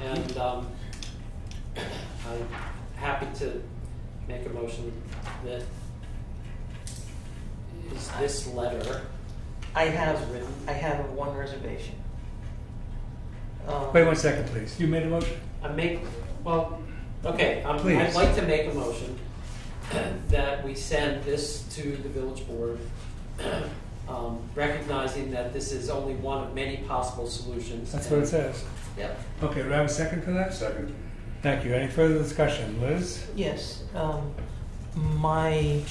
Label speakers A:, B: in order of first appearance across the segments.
A: And um, I'm happy to make a motion that is this letter
B: I have,
A: as written.
B: I have one reservation. Um,
C: Wait one second, please. You made a motion?
A: I make, well, okay, um, I'd
C: Please.
A: like to make a motion that we send this to the village board, um, recognizing that this is only one of many possible solutions.
C: That's what it says.
A: Yep.
C: Okay, do I have a second for that?
D: Second.
C: Thank you. Any further discussion? Liz?
B: Yes, um, my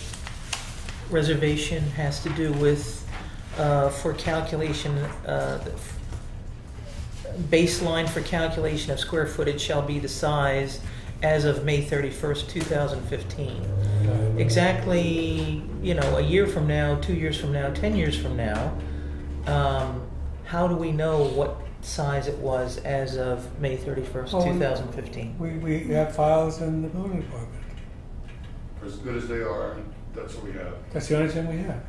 B: reservation has to do with, uh, for calculation, uh, the f- baseline for calculation of square footage shall be the size as of May thirty-first, two thousand fifteen. exactly, you know, a year from now, two years from now, ten years from now, um, how do we know what size it was as of May 31st,
C: Oh, we-
B: 2015?
C: We, we have files in the building department.
D: For as good as they are, that's what we have.
C: That's the only thing we have.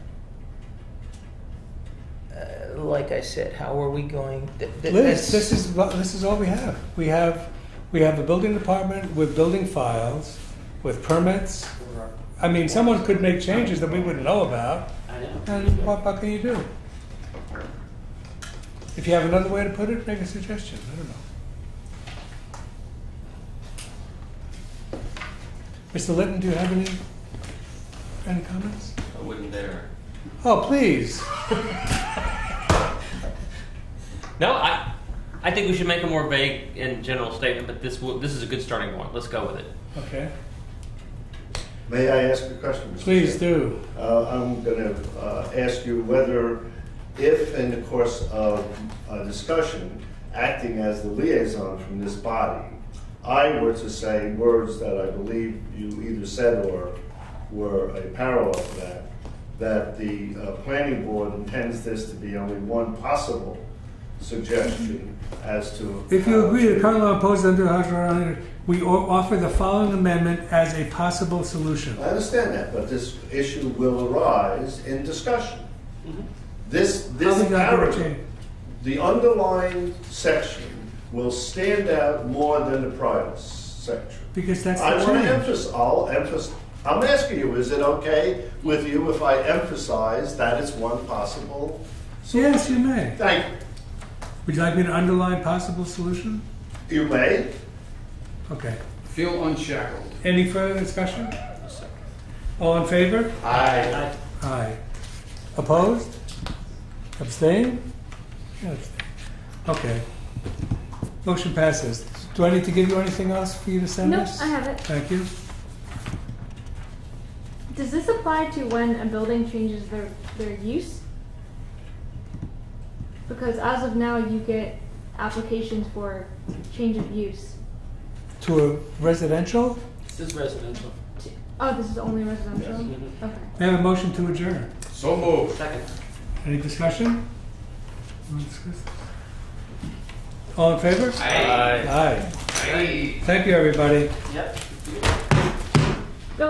B: Uh, like I said, how are we going? Th- th-
C: Liz,
B: that's-
C: this is, what- this is all we have. We have, we have the building department with building files, with permits. I mean, someone could make changes that we wouldn't know about,
A: I know.
C: and what, what can you do? If you have another way to put it, make a suggestion. I don't know. Mr. Litton, do you have any, any comments?
E: I wouldn't dare.
C: Oh, please.
E: No, I, I think we should make a more vague and general statement, but this will, this is a good starting point. Let's go with it.
C: Okay,
F: May I ask a question? Mr.
C: please
F: Chairman?
C: do.
F: Uh, I'm going to ask you whether, if in the course of a discussion, acting as the liaison from this body, I were to say words that I believe you either said or were a parallel to that, that the uh, planning board intends this to be only one possible suggestion as to.
C: If you agree that current law opposes under House Rule 100, we o- offer the following amendment as a possible solution.
F: I understand that, but this issue will arise in discussion.
D: Mm-hmm.
F: This,
C: How
F: this
C: we got here
F: paragraph,
C: changed.
F: the underlying section will stand out more than the prior s- section.
C: Because that's
F: I
C: the
F: want to
C: change.
F: emphasize, I'll emphasize, I'm asking you, is it okay with you if I emphasize that it's one possible?
C: Yes, you may.
F: Thank
C: Would you like me to underline possible solution?
F: you. You may.
C: Okay.
D: Feel unshackled.
C: Any further discussion? All in favor?
F: Aye.
C: Aye. Opposed? Abstain? Yeah, abstain. Okay. Motion passes. Do I need to give you anything else for you to send
G: No,
C: us?
G: I have it.
C: Thank you.
G: Does this apply to when a building changes their, their use? Because as of now, you get applications for change of use.
C: To a residential?
A: This is residential.
G: To- Oh, this is only residential? Okay.
C: May I have a motion to adjourn?
D: So moved.
A: Second.
C: Any discussion? No discuss- All in favor? Aye. Thank you, everybody.
A: Yep.